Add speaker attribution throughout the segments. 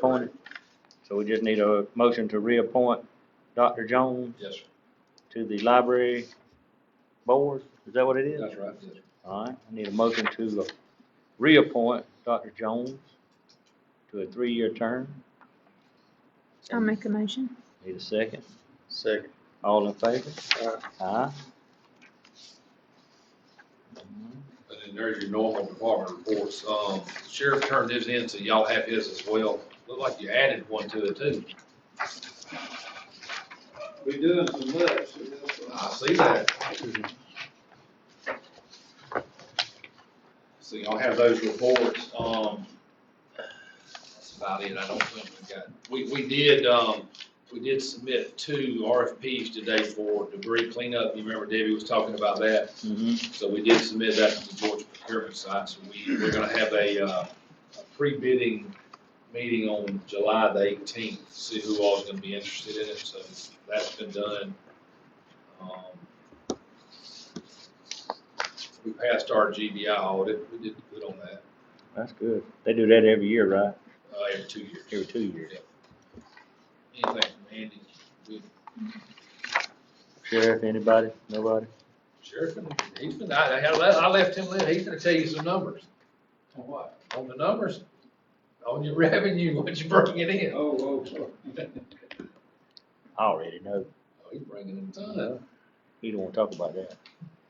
Speaker 1: appointed. So we just need a motion to reappoint Dr. Jones
Speaker 2: Yes, sir.
Speaker 1: to the library board. Is that what it is?
Speaker 2: That's right, yes. sir.
Speaker 1: All right, I need a motion to reappoint Dr. Jones to a three-year term.
Speaker 3: I'll make a motion.
Speaker 1: Need a second.
Speaker 4: Second.
Speaker 1: All in favor? Aye.
Speaker 2: And then there's your normal department reports. Um, sheriff turned his in, so y'all have his as well. Look like you added one to it too.
Speaker 5: We doing some much, so that's what
Speaker 2: I see that. So y'all have those reports, um, that's about it, I don't think we got, we, we did, um, we did submit two RFPs today for debris cleanup, you remember Debbie was talking about that?
Speaker 1: Mhm.
Speaker 2: So we did submit that to the Georgia procurement site, so we, we're gonna have a, uh, a pre-bidding meeting on July the eighteenth, see who all's gonna be interested in it, so that's been done. Um, We passed our GBI audit, we did good on that,
Speaker 1: That's good. They do that every year, right?
Speaker 2: uh, every two years.
Speaker 1: Every two years.
Speaker 2: Anything from Andy, we,
Speaker 1: Sheriff, anybody? Nobody?
Speaker 2: Sheriff, he's been, I, I had le- I left him, lit. he's gonna tell you some numbers.
Speaker 5: On what?
Speaker 2: On the numbers, on your revenue, what you bring it in. Oh,
Speaker 5: Oh, oh, oh.
Speaker 1: I already know.
Speaker 2: Oh, he's bringing in tons.
Speaker 1: You don't wanna talk about that.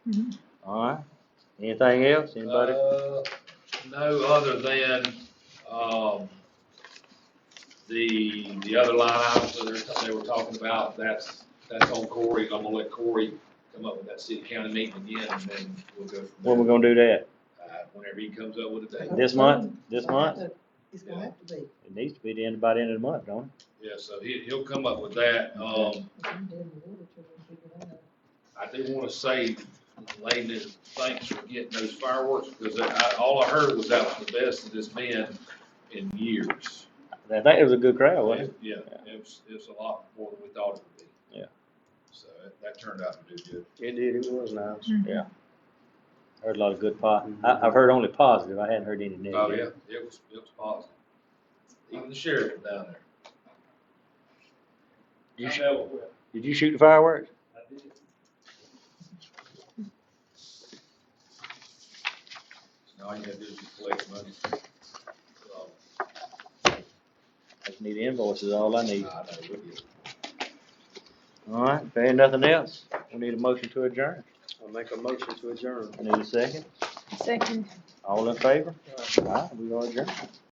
Speaker 3: Mhm.
Speaker 1: All right. Anything else? Anybody?
Speaker 2: Uh, No, other than, um, the, the other line items that they're, they were talking about, that's, that's on Corey. I'm gonna let Corey come up with that city county meeting again, and then we'll go
Speaker 1: When we
Speaker 2: from there.
Speaker 1: gonna do that?
Speaker 2: Uh, Whenever he comes up with a date.
Speaker 1: This month? This month?
Speaker 6: It's gonna have to be.
Speaker 1: It needs to be the end, by the end of the month, don't
Speaker 2: Yeah, so he, he'll come up with that. Um, I do want to say, Lady, thanks for getting those fireworks, because I, all I heard was that was the best it has been in years.
Speaker 1: it? I think it Oh, was a good crowd, wasn't it?
Speaker 2: Yeah, it was, it was a lot more than we thought it would be.
Speaker 1: Yeah.
Speaker 2: So that- that turned out to do good.
Speaker 4: It did, it was nice.
Speaker 3: Mhm.
Speaker 1: Yeah. Heard a lot of good po, I, I've heard only positive. I hadn't heard any
Speaker 2: Oh,
Speaker 1: negative.
Speaker 2: yeah, it was, it was positive. Even the sheriff was down there.
Speaker 1: You
Speaker 5: I
Speaker 1: sh-
Speaker 5: never will.
Speaker 1: Did you shoot the fireworks?
Speaker 5: I did.
Speaker 2: So All you had to do is just collect money. So,
Speaker 1: I just need invoices, all I
Speaker 2: I
Speaker 1: need.
Speaker 2: know, we did.
Speaker 1: All right, if there ain't nothing else, we need a motion to adjourn.
Speaker 4: I'll make a motion to adjourn.
Speaker 1: I need a second.
Speaker 3: Second.
Speaker 1: All in favor? All right, we are adjourned.